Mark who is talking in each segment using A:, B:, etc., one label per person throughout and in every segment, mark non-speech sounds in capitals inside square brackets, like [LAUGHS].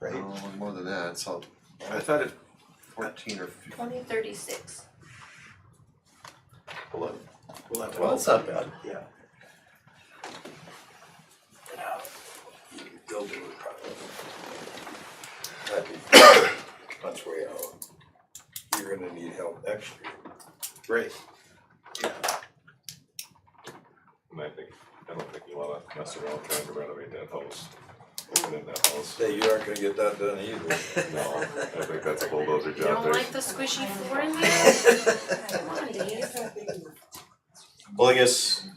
A: right?
B: No, more than that, so I thought it fourteen or fifteen.
C: Twenty thirty-six.
B: Eleven.
A: Well, it's not bad.
D: Yeah. Building would probably, that'd be much way out. You're gonna need help next year.
A: Right.
E: And I think, I don't think you wanna mess around trying to renovate that house. And then
B: [LAUGHS]
E: that house,
D: Hey, you aren't gonna get that done either.
E: no, I think that's a bulldozer
F: You don't
E: job there.
F: like the squishy floor in there? Come on, Dave.
B: Well, I guess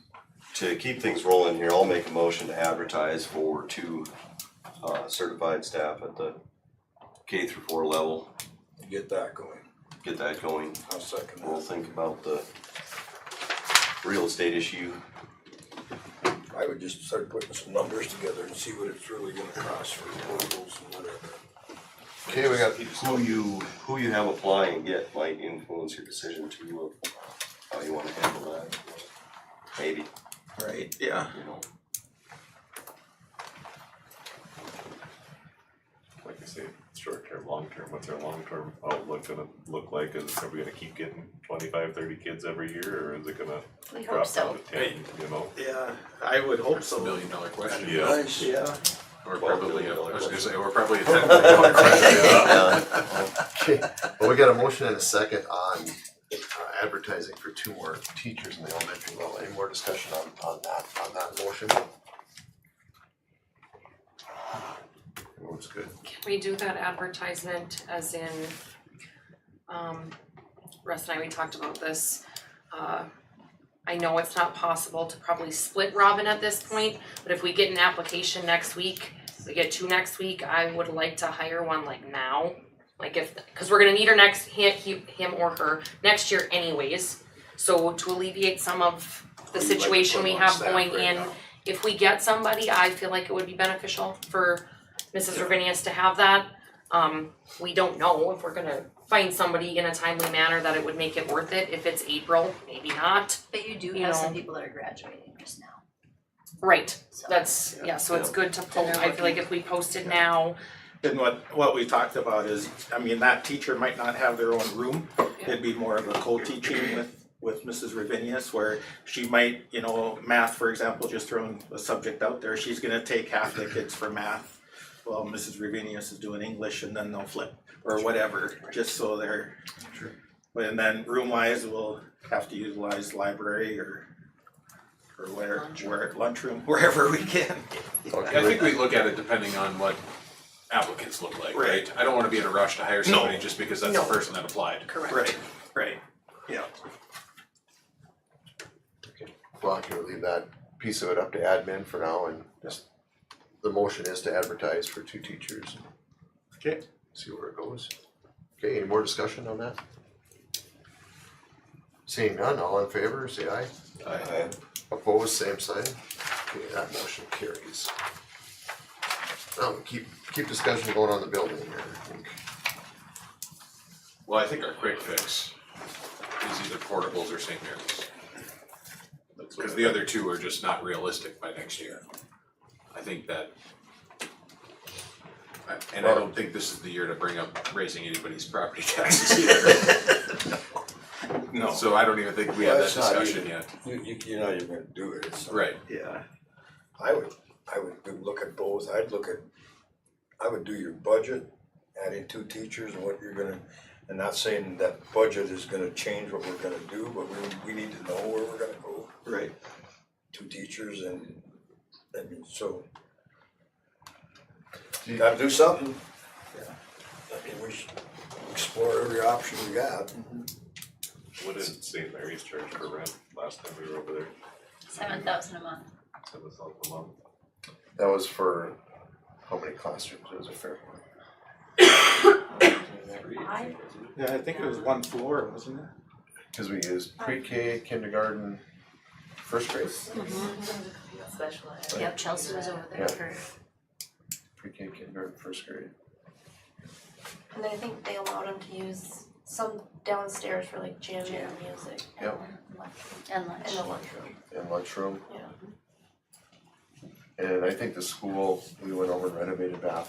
B: to keep things rolling here, I'll make a motion to advertise for two uh certified staff at the K through four level,
D: Get that going.
B: get that going.
D: I'll second
B: We'll
D: that.
B: think about the real estate issue.
D: I would just start putting some numbers together and see what it's really gonna cost for portables and whatever.
B: Okay, we got. Who you, who you have applying yet might influence your decision to uh, how you wanna handle that. Maybe,
A: Right, yeah.
B: you know.
E: Like you say, short term, long term, what's our long term outlook gonna look like? Is, are we gonna keep getting 25, 30 kids every year or is it gonna
C: [LAUGHS] We hope
E: drop
C: so.
E: down to ten, you know?
A: Yeah, I would hope
G: It's a
A: so.
G: million dollar question.
E: Yeah,
D: Nice.
A: Yeah,
G: Or probably,
B: Million
G: a-
B: dollar
G: I was
E: [LAUGHS]
G: gonna
B: question.
G: say, or
A: [LAUGHS]
G: probably a ten million dollar question.
H: Okay, well, we got a motion and a second on uh, advertising for two more teachers in the elementary level. Any more discussion on, on that, on that motion?
B: Looks good.
F: Can we do that advertisement as in, um, Russ and I, we talked about this. Uh, I know it's not possible to probably split Robin at this point, but if we get an application next week, we get two next week, I would like to hire one like now. Like if, cause we're gonna need her next, he, he, him or her, next year anyways. So to alleviate some of the
D: We'd like to
F: situation
D: put
F: we
D: them on
F: have
D: staff
F: going
D: right
F: in,
D: now.
F: if we get somebody, I feel like it would be beneficial for Mrs. Urbanius to have that. Um, we don't know if we're gonna find somebody in a timely manner that it would make it worth it, if it's April, maybe not.
C: But you do
F: You
C: have some
F: know.
C: people that are graduating just now,
F: Right,
C: so.
F: that's, yeah, so it's good to post, I feel like if we posted now,
A: and what, what we talked about is, I mean, that teacher might not have their own room. It'd be more of a co-teaching with, with Mrs. Ravinius where she might, you know, math, for example, just throwing a subject out there, she's gonna take half the kids for math. While Mrs. Ravinius is doing English and then they'll flip or whatever, just so they're. Sure. And then room wise, we'll have to utilize library or, or where, where, lunchroom, [LAUGHS] wherever we can.
G: I think we look at it depending on what applicants look like,
A: Right.
G: right? I don't wanna be in a rush to hire somebody just because that's the person that applied.
F: correct.
A: Right, right, yeah.
H: Well, can we leave that piece of it up to admin for now and just, the motion is to advertise for two teachers.
A: Okay.
H: See where it goes. Okay, any more discussion on that? Seeing none, all in favor, say aye.
D: Aye.
H: Opposed, same sign. Okay, that motion carries. Now, we keep, keep discussion going on the building here, I think.
G: Well, I think our quick fix is either portables or St. Mary's.
E: that's what
G: Cause
E: I-
G: the other two are just not realistic by next year. I think that. I- And I don't think this is the year to bring up raising anybody's property [LAUGHS] taxes either,
E: [LAUGHS]
A: No.
G: so I don't even think we have
D: Well,
G: that
D: it's not
G: discussion
D: even-
G: yet,
D: You, you, you're not even gonna do it, it's.
G: right?
A: Yeah,
D: I would, I would do, look at both, I'd look at, I would do your budget, adding two teachers and what you're gonna, and not saying that budget is gonna change what we're gonna do, but we, we need to know where we're gonna go,
A: right.
D: two teachers and, I mean, so. You gotta do something. Yeah. I mean, we should explore every option we got.
E: What did St. Mary's charge for rent last time we were over there?
C: Seven thousand a month.
E: Seven thousand a month?
H: That was for how many classrooms? It was a fair one.
C: I-
A: Yeah, I think it was one floor, wasn't it?
H: Cause we used pre-K, kindergarten, first grade,
F: Special
C: Yep, Chelsea was over there
H: Yeah.
C: for,
H: pre-K, kindergarten, first grade.
I: And I think they allowed them to use some downstairs for like jam and music
H: Yep.
C: and lunch.
I: in the lunchroom.
H: and lunchroom.
I: Yeah.
H: And I think the school, we went over and renovated bathrooms